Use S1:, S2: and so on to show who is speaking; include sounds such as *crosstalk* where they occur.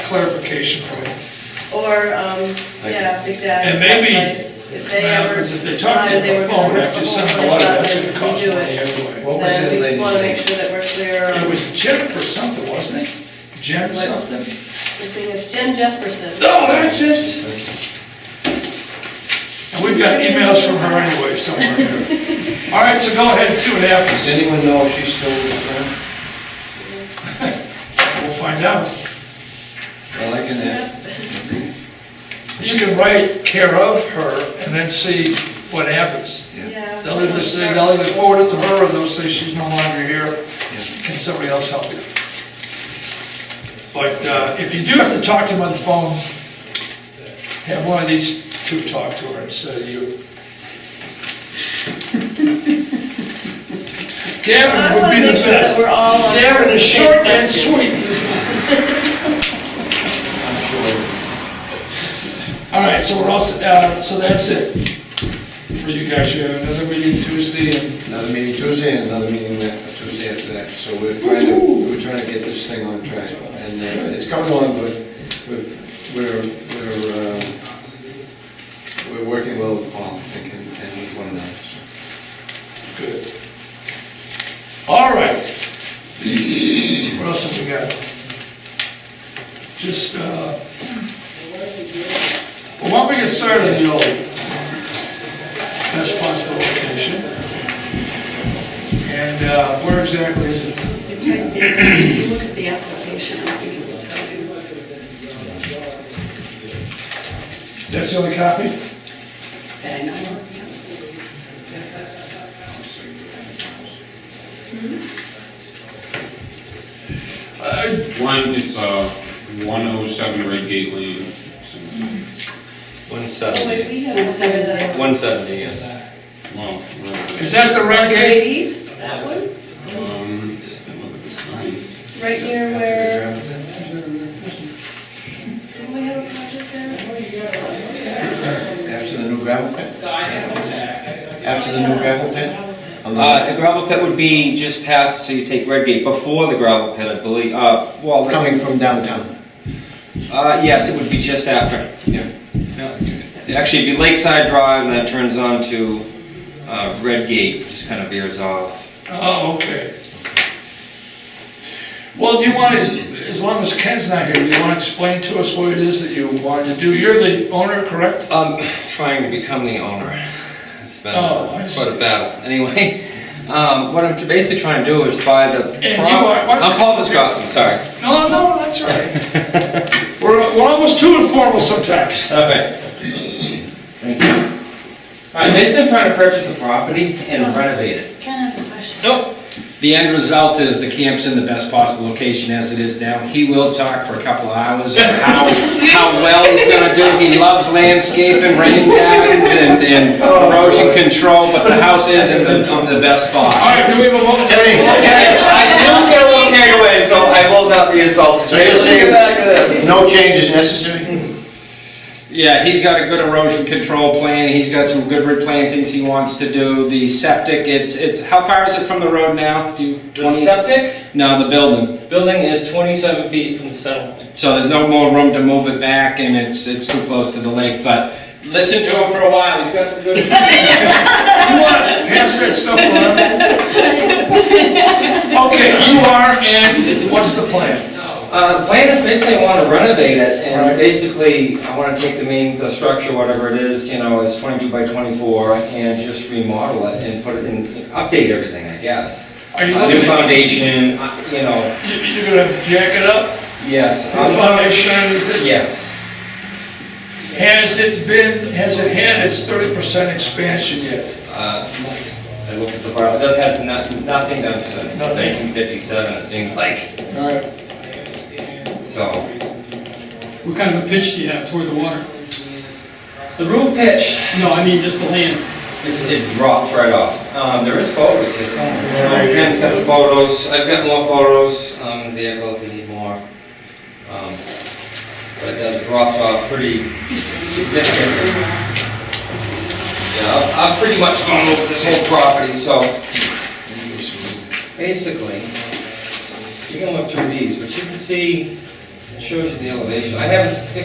S1: clarification from you.
S2: Or, um, yeah, exactly.
S1: And maybe,
S2: If they ever
S1: Because if they talk to you on
S2: decided they were
S1: the
S2: gonna
S1: phone,
S2: work
S1: after
S2: from
S1: you send
S2: home,
S1: them a letter, that's
S2: they
S1: gonna
S2: thought
S1: cost
S2: they'd
S1: money
S2: redo it.
S1: anyway.
S3: What was
S2: Then
S3: it,
S2: we just
S3: ladies?
S2: wanna make sure that we're clear
S1: It
S2: on,
S1: was Jennifer something, wasn't it? Jen
S2: What?
S1: something?
S2: the thing is Jen Jesperson.
S1: No, that's it. And we've got emails from her anyway somewhere here.
S2: *laughs*
S1: All right, so go ahead and see what
S3: Does
S1: happens.
S3: anyone know if she's still with them?
S1: We'll find out.
S3: Well, I can uh, ask.
S1: You can write care of her and then see what happens.
S2: Yeah.
S1: They'll either say, they'll either forward it to her or they'll say she's no longer here. Can somebody else help you? But uh, if you do have to talk to them on the phone, have one of these two talk to her instead of
S2: *laughs*
S1: you.
S2: I
S1: Gavin would
S2: wanna
S1: be the
S2: make sure that
S1: best.
S2: we're all on.
S1: Gavin is short and sweet.
S3: I'm sure.
S1: All right, so we're all, s- uh, so that's it for you guys. You have another meeting Tuesday and
S3: Another meeting Tuesday and another meeting that, Tuesday after that. So we're trying to, we're trying to get this thing on track. And uh, it's coming along, but we've, we're, we're, um, we're working well with Paul, I think, and and with one another. so.
S1: good. All right. What else have we got? Just, uh, well, why don't we get started in the old best possible location? And uh, where exactly is it?
S2: It's right there. If you look at the application, I think it will tell you.
S1: That's the only copy?
S2: that I know of.
S4: One, it's uh, 107 Red Gate Lane.
S5: One
S2: Oh, wait,
S5: seventy.
S2: we have. Seven zero.
S5: One seventy, yeah.
S4: Well, right,
S1: Is that the red
S2: Right
S1: gate?
S2: east, that one,
S4: um, look at this line.
S2: right near where. Didn't we have a project there?
S3: After the new gravel pit? After the new gravel pit? On the-
S6: Uh, the gravel pit would be just past, so you take Redgate before the gravel pit, I believe, uh, well,
S3: Coming from downtown,
S6: uh, yes, it would be just after.
S3: yeah.
S6: Actually, it'd be Lakeside Drive, and that turns on to, uh, Redgate, just kind of veers off.
S1: Oh, okay. Well, do you want to, as long as Ken's not here, do you want to explain to us what it is that you wanted to do? You're the owner, correct?
S6: Um, trying to become the owner. It's been
S1: Oh, I
S6: quite
S1: see.
S6: a battle. Anyway, um, what I'm basically trying to do is buy the.
S1: And you
S6: prop-
S1: are- why don't
S6: I'm
S1: you-
S6: Paul Descrosky, sorry.
S1: No, no, that's all right. We're, *laughs* we're almost too informal sometimes.
S6: Okay. All right, basically I'm trying to purchase the property and renovate it.
S2: Ken has a question.
S7: Nope. The end result is the camp's in the best possible location as it is now. He will talk for a couple of hours on how, how well he's gonna do. He loves landscaping, rain gardens, and, and erosion control, but the house is in the, on the best
S1: All
S7: spot.
S1: right, do we have a vote?
S6: I do get a little carried away, so I will not be insulted.
S3: So you're
S6: Let's get
S3: saying-
S6: back to this.
S3: No change is necessary?
S7: Yeah, he's got a good erosion control plan, he's got some good replantings he wants to do. The septic, it's, it's, how far is it from the road now? Do you-
S5: The septic
S7: No, the building.
S5: building is twenty-seven feet from the center line.
S7: So there's no more room to move it back and it's, it's too close to the lake, but
S5: Listen to him for a while, he's got some
S6: *laughs*
S5: good.
S1: You want to pass that stuff around? Okay, you are, and what's the plan?
S6: Uh, the plan is basically I want to renovate it, and basically, I want to take the main, the structure, whatever it is, you know, it's twenty-two by twenty-four, and just remodel it and put it in, update everything, I guess.
S1: Are you
S6: A New
S1: looking,
S6: foundation, uh, you know,
S1: you- you're gonna jack it up?
S6: yes. Um,
S1: New foundation or anything?
S6: Yes.
S1: Has it been, has it had its thirty percent expansion yet?
S6: Uh, I looked at the file, that has not- nothing done since
S1: Nothing.
S6: nineteen fifty-seven, it seems like,
S1: All right.
S6: so.
S8: What kind of a pitch do you have toward the water?
S6: The roof pitch,
S8: No, I mean just the land.
S6: It's, it drops right off. Um, there is photos, it's, you know, Ken's got the photos, I've got more photos, um, vehicle if you need more. Um, But it does, drops off pretty significantly. Yeah, I've, I've pretty much gone over this whole property, so basically, you can look through these, but you can see shows you the elevation. I have a s-